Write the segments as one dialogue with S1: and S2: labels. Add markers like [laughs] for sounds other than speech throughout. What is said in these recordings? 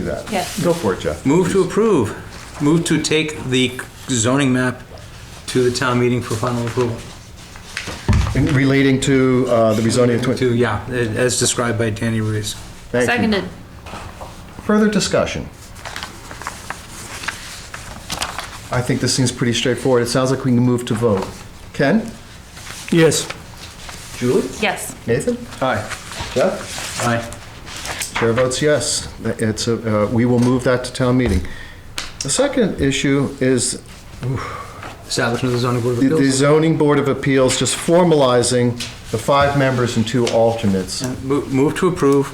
S1: do that.
S2: Yes.
S1: Go for it, Jeff.
S3: Move to approve. Move to take the zoning map to the town meeting for final approval.
S1: In Relating to uh, the rezoning of 20...
S3: To, yeah, as described by Danny Ruiz.
S1: Thank you.
S2: Seconded.
S1: Further discussion? I think this seems pretty straightforward. It sounds like we can move to vote. Ken?
S3: Yes.
S1: Julie?
S2: Yes.
S1: Nathan? Hi. Jeff?
S3: Aye.
S1: Chair votes yes. It's, a- uh, we will move that to town meeting. The second issue is
S3: Establishment of the zoning board of
S1: the- the
S3: appeals.
S1: zoning board of appeals just formalizing the five members and two alternates.
S3: Mo- Move to approve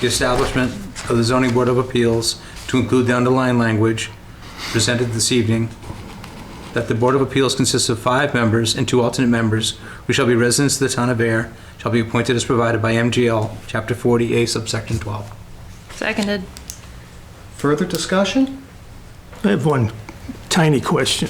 S3: the establishment of the zoning board of appeals to include the underlying language presented this evening, that the board of appeals consists of five members and two alternate members, who shall be residents of the town of Air, shall be appointed as provided by MGL, Chapter 40A, subsection 12.
S2: Seconded.
S1: Further discussion?
S4: I have one tiny question.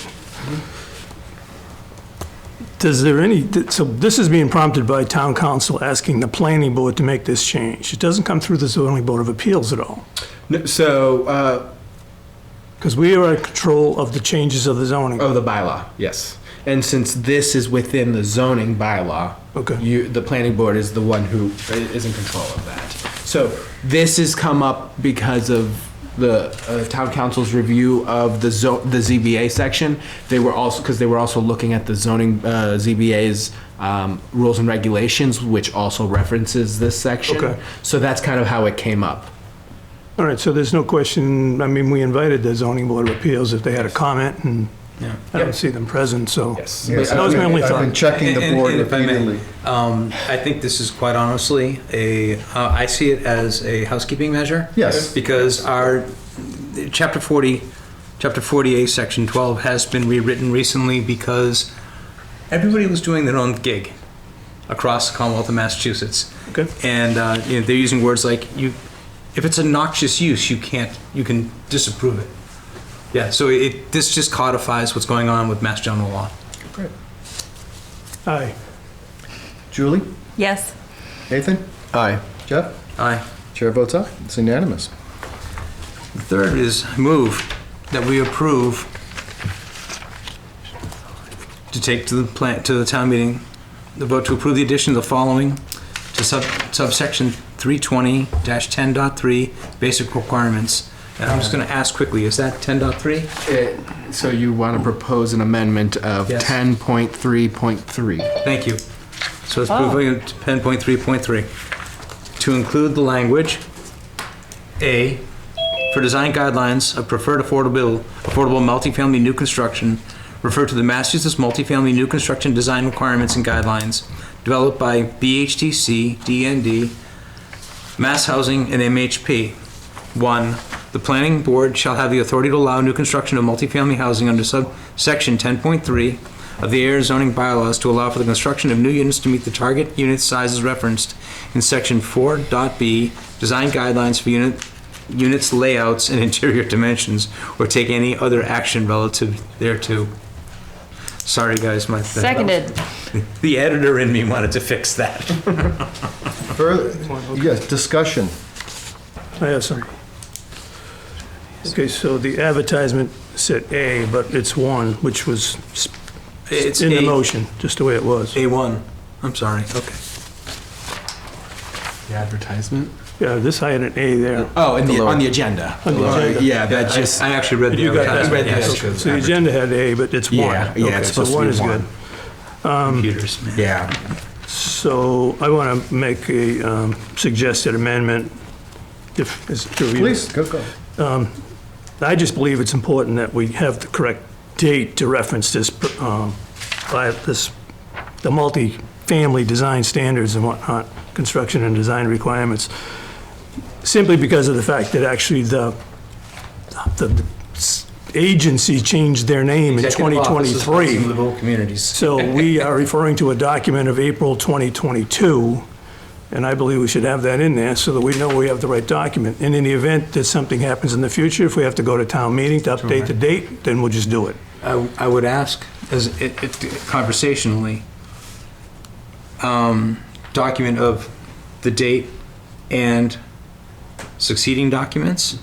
S4: Does there any, so this is being prompted by town council asking the planning board to make this change. It doesn't come through the zoning board of appeals at all,
S5: No, So, uh,
S4: because we are in control of the changes of the zoning.
S5: oh, the bylaw, yes. And since this is within the zoning bylaw,
S4: Okay.
S5: you, the planning board is the one who i- is in control of that. So this has come up because of the uh, town council's review of the zo- the ZBA section. They were also because they were also looking at the zoning uh, ZBA's um, rules and regulations, which also references this section.
S4: Okay.
S5: So that's kind of how it came up.
S4: All right, so there's no question, I mean, we invited the zoning board of appeals if they had a comment, and I don't see them present, so.
S5: Yes.
S1: Yes,
S4: That was my
S1: I've been-
S4: only
S1: I've
S4: thought.
S1: been checking the
S3: And-
S1: board
S3: and if I may,
S1: repeatedly.
S3: Um, I think this is quite honestly a, uh, I see it as a housekeeping measure.
S1: Yes.
S3: Because our, chapter 40, chapter 48, section 12 has been rewritten recently because everybody was doing their own gig across the Commonwealth of Massachusetts.
S4: Okay.
S3: And, uh, you know, they're using words like, you, if it's a noxious use, you can't, you can disapprove it. Yeah, so it, this just codifies what's going on with Mass General Law.
S4: Aye.
S1: Julie?
S2: Yes.
S1: Nathan? Aye. Jeff?
S3: Aye.
S1: Chair votes aye. It's unanimous.
S3: Third is move that we approve to take to the plant, to the town meeting, the vote to approve the addition of the following to sub subsection 320-10.3, basic requirements. And I'm just going to ask quickly, is that 10.3?
S5: It- so you want to propose an amendment of
S3: Yes.
S5: 10.3.3.
S3: Thank you. So it's approving 10.3.3. To include the language, A, for design guidelines of preferred affordable, affordable multifamily new construction, refer to the Massachusetts multifamily new construction design requirements and guidelines developed by BHTC, DND, Mass Housing, and MHP. One, the planning board shall have the authority to allow new construction of multifamily housing under subsection 10.3 of the air zoning bylaws to allow for the construction of new units to meet the target unit sizes referenced in section 4.b, design guidelines for unit, units layouts and [laughs] interior dimensions, or take any other action relative thereto. Sorry, guys, my.
S2: Seconded.
S3: The editor in me wanted to fix that.
S4: [laughs]
S1: Further, yes, discussion.
S4: I have some. Okay, so the advertisement said A, but it's one, which was s-
S3: It's
S4: in the
S3: A-
S4: motion, just the way it was.
S3: A1. I'm sorry, okay.
S5: The advertisement?
S4: Yeah, this, I had an A there.
S5: Oh, and the, on the agenda.
S4: On the
S5: Lower.
S4: agenda.
S5: Yeah, that
S3: I-
S5: just.
S3: I actually read the
S4: You got that?
S3: advertisement.
S5: You read
S3: yes,
S5: this.
S4: Okay,
S3: because
S4: So the agenda had A, but it's one.
S5: Yeah, yeah,
S4: Okay,
S5: it's
S4: so
S5: supposed to be
S4: is
S5: one.
S4: good.
S3: computers, man.
S5: yeah.
S4: So I want to make a um, suggested amendment, if, is it through you?
S1: Please, go, go.
S4: I just believe it's important that we have the correct date to reference this, um, by this, the multi-family design standards and whatnot, construction and design requirements, simply because of the fact that actually the, the s- agency changed their name in
S3: Executive offices, policies,
S4: 2023.
S3: livable communities.
S4: So we are referring to a document of April 2022, and I believe we should have that in there so that we know we have the right document. And in the event that something happens in the future, if we have to go to town meeting to update the date, then we'll just do it.
S3: I, I would ask, as it, it conversationally, um, document of the date and succeeding documents.